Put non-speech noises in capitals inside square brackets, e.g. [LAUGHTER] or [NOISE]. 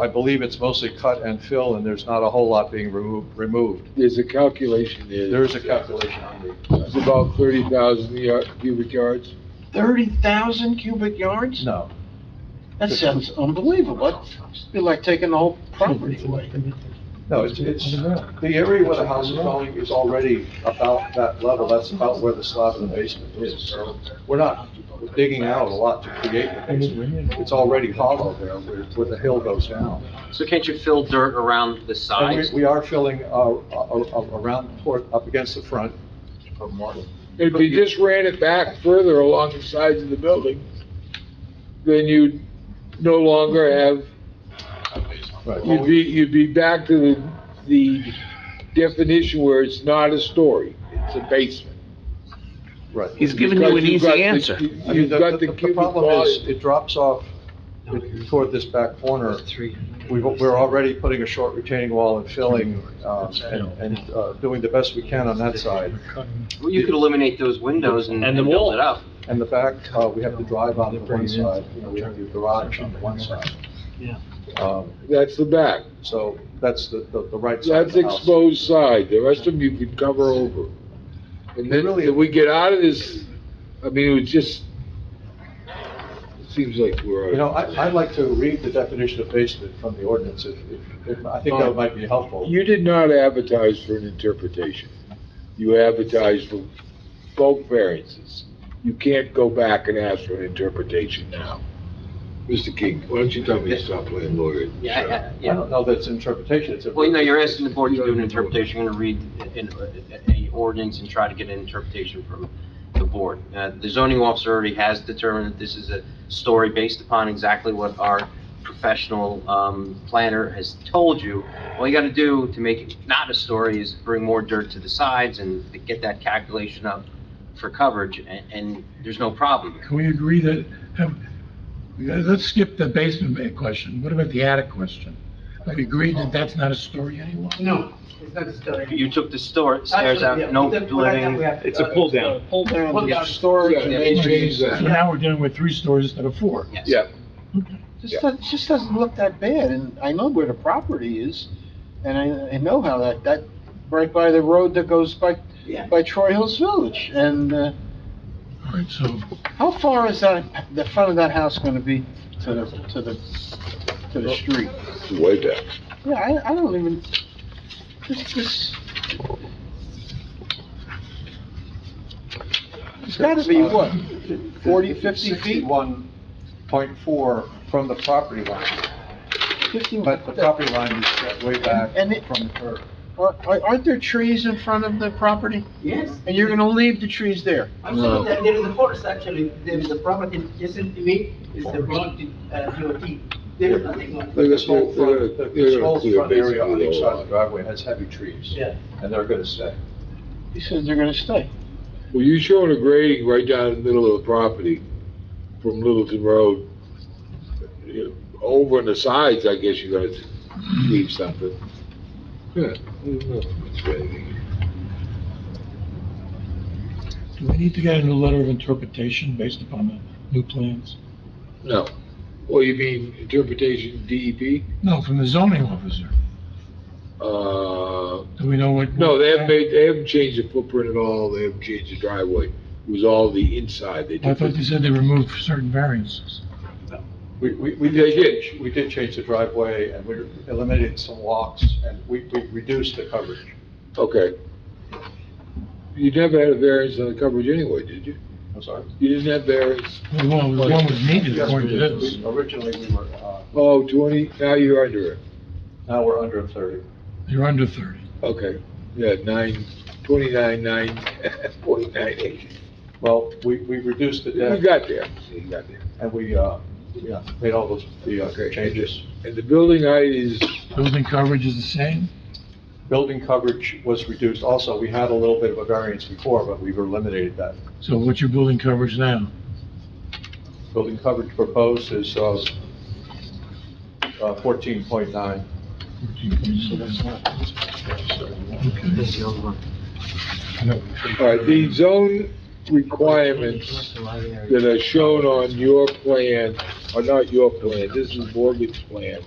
I believe it's mostly cut and fill, and there's not a whole lot being removed, removed. There's a calculation there. There is a calculation on the, It's about thirty thousand cubic yards. Thirty thousand cubic yards? no, That sounds unbelievable. That's- You're like taking the whole property away. no, it's, it's, the area where the house is going is already about that level, that's about where the slab in the basement is. So We're not digging out a lot to create the basement, it's already hollow there where, where the hill goes down. So can't you fill dirt around And the we, sides? we are filling, uh, a- a- around, toward- up against the front. If you just ran it back further along the sides of the building, then you'd no longer have, Right. you'd be, you'd be back to the, the definition where it's not a story, it's a basement. Right. He's giving you Because an you've got easy the- answer. you- I mean, You've the, got the the the cubic problem is, volume. it drops off toward this back corner. We, we're already putting a short retaining wall and filling, um, and, and, uh, doing the best we can on that side. Well, you could eliminate those windows and And and the wall. build it up. And the back, uh, we have the drive on the one side, you know, we have the garage on the one side. Yeah. Um, That's the back. so that's the, the, the right side of That's the house. exposed side, the rest of them you can cover over. And then, Really- if we get out of this, I mean, it was just, it seems like we're. You know, I, I'd like to read the definition of basement from the ordinance, if, if, if- I think that might be helpful. You did not advertise for an interpretation. You advertised for bulk variances. You can't go back and ask for an interpretation now. Mr. King, why don't you tell me to stop playing lawyer? Yeah, I- I- I yeah. don't know that it's interpretation, it's a. Well, you know, you're asking the board to do an interpretation, you're gonna read an, an ordinance and try to get an interpretation from the board. Uh, the zoning officer already has determined that this is a story based upon exactly what our professional, um, planner has told you. All you gotta do to make it not a story is bring more dirt to the sides and get that calculation up for coverage, and, and there's no problem. Can we agree that, have- let's skip the basement question. What about the attic question? Have we agreed that that's not a story anymore? No, it's not a story. You took the store, stairs out, no living. It's a pull down. Pull down, Yeah. the storage. Yeah, and they changed So that. basement. now we're dealing with three stories instead of four. Yes. Yeah, Just, doesn't- just doesn't look that bad, and I know where the property is, and I, I know how that, that, right by the road that goes by, by Troy Hills Village, and, uh, All right, so how far is that, the front of that house gonna be to the, to the, to the street? it's way back. Yeah, I, I don't even, this, this. It's gotta be what, 40, 50 feet? Sixty-one point four from the property line, fifty? but the property line is set way back And it- from the curb. Are- are- Aren't there trees in front of the property? Yes, And you're gonna leave the trees there? I'm sure that there is a forest actually, there is a property adjacent to me, is the property, uh, DOT. There is nothing on it. They're This whole uh, gonna- they're front, gonna- this they're gonna whole clear front area on basically each the side whole of the driveway has heavy trees. Yeah. And they're gonna stay. He says they're gonna stay. Well, you showing a grading right down in the middle of the property from Littleton Road. You know, Over on the sides, I guess you gotta leave something. Yeah, there's nothing much grading. do we need to get a new letter of interpretation based upon the new plans? No. Well, Oh, you mean interpretation E DEP? No, from the zoning officer. Uh, Do we know what? no, they haven't made, they haven't changed the footprint at all, they haven't changed the driveway. It was all the inside they I did. thought they said they removed certain variances. We, we, we They did. did, we did change the driveway and we eliminated some walks and we, we reduced the coverage. Okay. You never had a variance on the coverage anyway, did you? I'm sorry. You didn't have variance? Well, one was one was needed Yes, we according to did. this. We- Originally, we were, uh, Oh, 20, now you're under it. now we're under thirty. You're under thirty. Okay, yeah, nine, twenty-nine, nine, [LAUGHS] forty-nine, eight. Well, we, we reduced the You deck got there, you got there. and we, uh, yeah, made all those, the uh, Okay. changes. And the building height is, Building coverage is the same? Building coverage was reduced also. We had a little bit of a variance before, but we've eliminated that. So what's your building coverage now? Building coverage proposed is, uh, uh, fourteen point nine. Okay. all right, uh, the zone requirements that are shown on your plan, are not your plan, this is Morgan's plan,